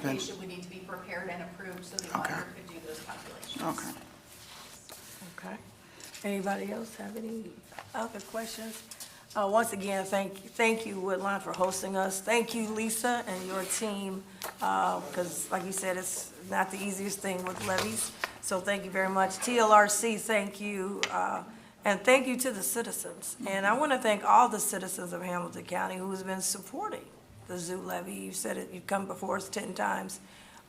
application would need to be prepared and approved so the Okay. auditor could do those calculations. Okay. Okay. Anybody else have any other questions? Uh, Once again, thank, thank you, Woodline, for hosting us. Thank you, Lisa, and your team, because like you said, it's not the easiest thing with levies. So thank you very much. TLRC, thank you, uh, and thank you to the citizens. And I want to thank all the citizens of Hamilton County who has been supporting the zoo levy. You've said it, you've come before us 10 times.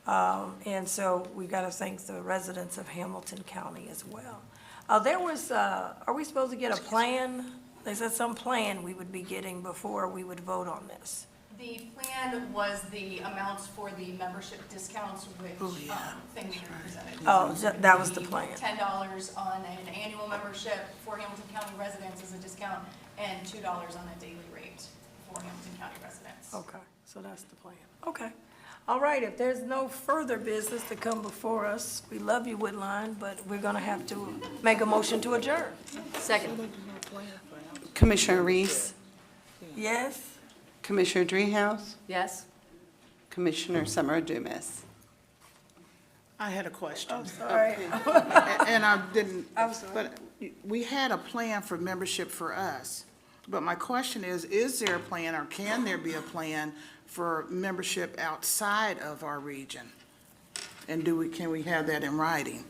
Um, And so we've got to thank the residents of Hamilton County as well. Uh, There was, uh, are we supposed to get a plan? They said some plan we would be getting before we would vote on this. The plan was the amounts for the membership discounts, Oh, which, um, thing we presented. Oh, ju- that was the plan. Ten dollars on an annual membership for Hamilton County residents is a discount, and two dollars on a daily rate for Hamilton County residents. Okay, so that's the plan. Okay. All right, if there's no further business to come before us, we love you, Woodline, but we're going to have to make a motion to adjourn. Second. Commissioner Reese, Yes? Commissioner Dreehouse, Yes? Commissioner Summer Dumas. I had a question, Sorry. a- and I didn't, I'm sorry. but we had a plan for membership for us. But my question is, is there a plan or can there be a plan for membership outside of our region? And do we, can we have that in writing?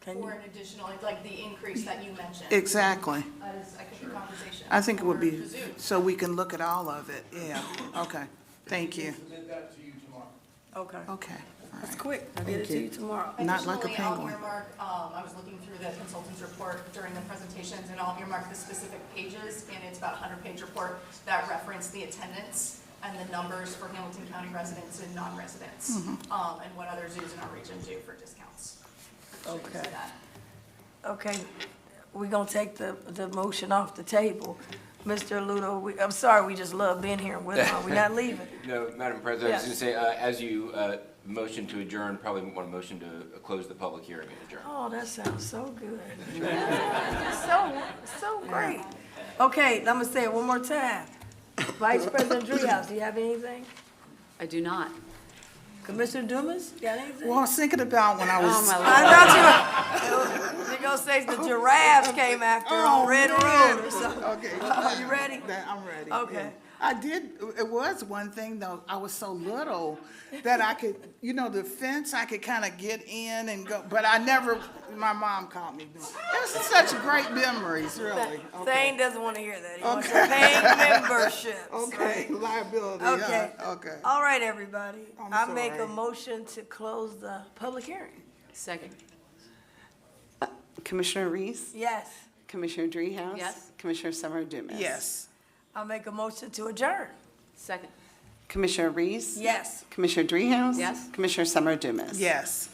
Can For you- an additional, like the increase that you mentioned. Exactly. That is, I think, a conversation. I think it would for be, the zoo. so we can look at all of it, yeah, okay, thank you, Present that to you tomorrow. Okay. okay. all That's right. quick. I'll get it to Thank you you. tomorrow. Not like a Additionally, I'll penguin. earmark, um, I was looking through the consultant's report during the presentations, and I'll earmark the specific pages, and it's about a hundred-page report that reference the attendance and the numbers for Hamilton County residents and non-residents, Mm-hmm. um, and what other zoos in our region do for discounts. So you can see Okay. that. Okay, we're gonna take the, the motion off the table. Mr. Ludo, we, I'm sorry, we just love being here in Woodlawn, we're not leaving. No, Madam President, I was Yes. going to say, uh, as you uh, motion to adjourn, probably want to motion to uh, close the public hearing and adjourn. Oh, that sounds so good. So, so great. Okay, I'm gonna say it one more time. Vice President Dreehouse, do you have anything? I do not. Commissioner Dumas, you got anything? Well, I was thinking about when I was. Oh, my I Lord. thought you were, you're gonna say the giraffes came after on Oh, Red man. Road or something. Okay. Are you ready? That- I'm ready. Okay. yeah. I did, it was one thing though, I was so little that I could, you know, the fence, I could kind of get in and go, but I never, my mom caught me doing. It was such great memories, really. Thane doesn't wanna hear that, he wants your Thane memberships, Okay, liability, Okay. yeah, okay. All right, everybody. I'm I make a sorry. motion to close the public hearing. Second. Commissioner Reese, Yes. Commissioner Dreehouse. Yes. Commissioner Summer Dumas. Yes. I make a motion to adjourn. Second. Commissioner Reese. Yes. Commissioner Dreehouse. Yes. Commissioner Summer Dumas. Yes.